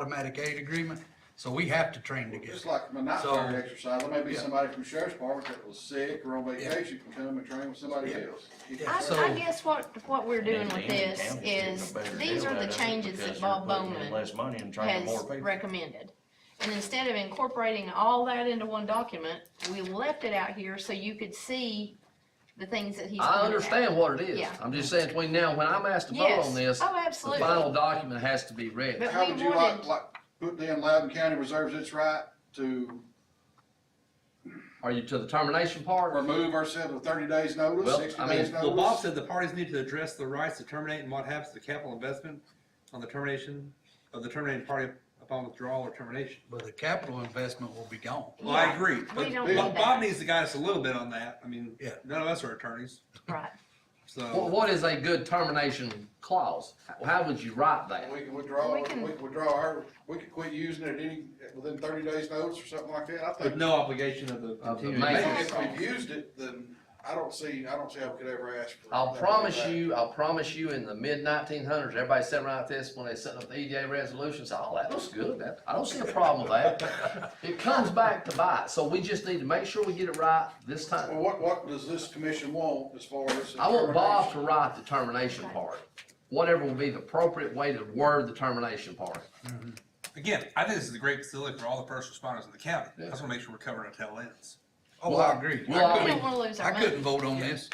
automatic aid agreement, so we have to train together. Just like my night guard So- exercise, there may be Yeah. somebody from sheriff's department that was sick or on Yeah. vacation, can come and train with somebody Yeah. else. Yeah. I, So- I guess what, what we're doing with And then this the is, town is getting a better these deal are out the of it changes because that they're Bob putting in Bowman Less money and training more has people. recommended. And instead of incorporating all that into one document, we left it out here so you could see the things that he's. I pointed out. understand what it is. Yeah. I'm just saying between now, and when I'm asked to vote Yes. on this, Oh, the absolutely. final document has to be ready. But How we would you like, wanted- like, put down Loudon County reserves its right to Are you to the termination part? remove ourselves with thirty days notice, Well, sixty I mean, days Well, Bob notice? said the parties need to address the rights to terminate and what happens to capital investment on the termination of the terminating party upon withdrawal or termination. But the capital investment will be gone. Well, I Yeah. agree, We but don't Bob- want Bob, Bob that, needs to guide us a little bit on that. I mean, Yeah. none of us are attorneys, right. What, so. what is a good termination clause? How- How would you write that? We can withdraw, We we can- can withdraw our, we could quit using it at any, within thirty days notice or something like that, I With think. no obligation of the. Of the continuing maintenance. Exactly. maintenance. If we've used it, then I don't see, I don't see how we could ever ask for. I'll that promise back. you, I'll promise you, in the mid nineteen hundreds, everybody sitting around like this, when they set up the EDA resolutions, oh, that looks good, that, I don't see a problem with that. It comes back to bite, so we just need to make sure we get it right this Well, time. what, what does this commission want as far as? I want Bob to determination? write the termination part, whatever will be the appropriate way to word the termination part. Again, I think this is a great facility for all the first responders in the county. I just wanna make sure we're covering our tail ends. Oh, I agree. Well, We I don't mean, wanna lose I our couldn't money. vote on this.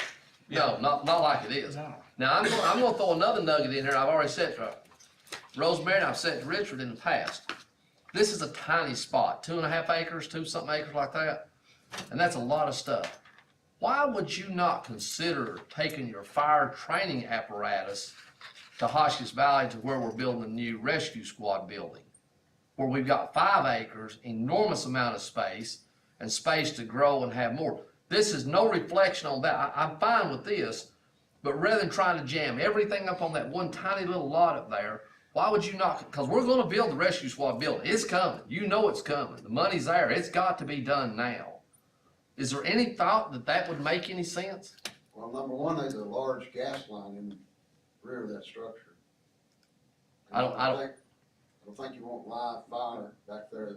no, not, not like it is. Now, I'm gonna, I'm gonna throw another nugget in here, I've already said to Rosemary, and I've said to Richard in the past. This is a tiny spot, two and a half acres, two something acres like that, and that's a lot of stuff. Why would you not consider taking your fire training apparatus to Hotchkiss Valley to where we're building a new rescue squad building? Where we've got five acres, enormous amount of space, and space to grow and have more. This is no reflection on that, I, I'm fine with this, but rather than trying to jam everything up on that one tiny little lot up there, why would you not? Because we're going to build the rescue squad building. It's coming. You know it's coming. The money's there. It's got to be done now. Is there any thought that that would make any sense? Well, number one, there's a large gas line in the rear of that structure. I don't- I don't- think- I don't think you want live fire back there.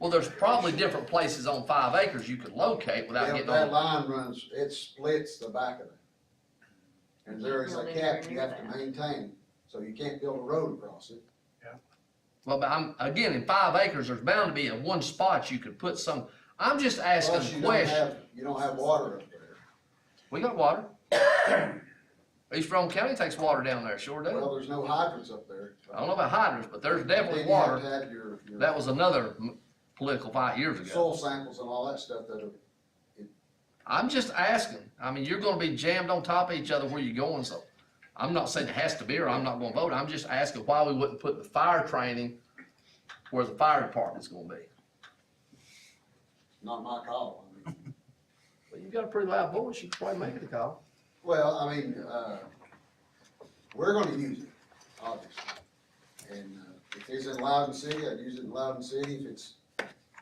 Well, there's probably different places on five acres you could locate without Yeah, getting that on. line runs, it splits the back of it. And there is a Build anywhere cap you near have to that. maintain, so you can't build a road across it. Well, but I'm again in five acres. There's bound to be a one spot you could put some. I'm just asking Plus, a you don't question. have, you don't have water up there. We got water. East Rome County takes water down there. Sure does. Well, there's no hydrants up there. I don't know about hydrants, but there's definitely Then you have water. to have your- your That was another m- political fight years ago. Soil samples and all that stuff that are I'm just asking. I mean, you're gonna be jammed on top of each other where you going, so. I'm not saying it has to be or I'm not gonna vote. I'm just asking why we wouldn't put the fire training where the fire department's gonna be. not my call. I mean, Well, you've got a pretty loud voice. You can probably make the call. Well, I mean, uh, we're gonna use it, obviously. And, uh, if it's in Loudon City, I'd use it in Loudon City. If it's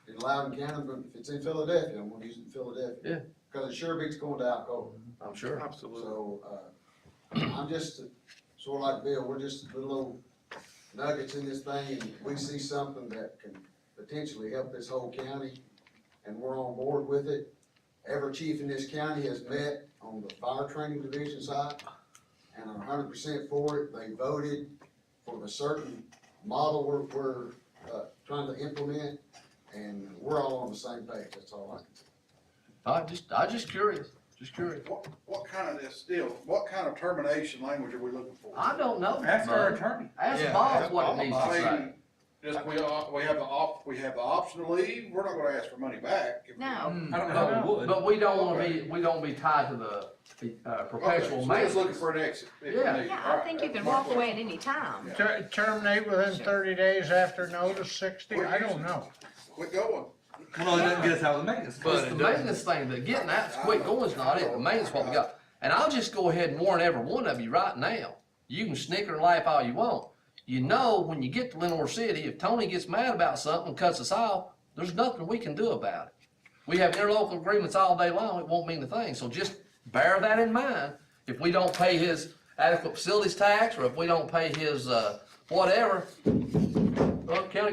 in Loudon County, but if it's in Philadelphia, I'm gonna use it in Philadelphia. Yeah. Cause it sure beats going to Alcoa. I'm sure. So, uh, I'm just, sort of like Bill, we're just little old nuggets in this thing, and we see something that can potentially help this whole county, and we're on board with it. Every chief in this county has met on the fire training division side, and are hundred percent for it, they voted for the certain model we're, we're, uh, trying to implement, and we're all on the same page, that's all I can say. I just, I just curious, just curious. What, what kind of this deal, what kind of termination language are we looking for? I don't know. Ask our Bud. attorney. Ask Yeah, Bob ask what Bob. it needs I to say. mean, Just, we, are- we have the op, we have the option to leave, we're not gonna ask for money back. if we- No, Hmm. I Mm. don't know how we would. But we don't wanna be, we don't be tied to the, the, uh, Okay, so perpetual we're just looking maintenance. for an exit. if we Yeah. need. yeah, All I right, think you that's can my walk question. away at any time. Ter- Terminate within thirty days after notice, sixty, I don't know. Quit going. Well, it doesn't get us out of the maintenance. It's the maintenance thing, that getting that's quick going's not it, the maintenance what we got. And I'll just go ahead and warn every one of you right now, you can snicker and laugh all you want. You know, when you get to Lenore City, if Tony gets mad about something, and cuts us off, there's nothing we can do about it. We have interlocal agreements all day long, it won't mean a thing, so just bear that in mind. If we don't pay his adequate facilities tax, or if we don't pay his, uh, whatever, Well, county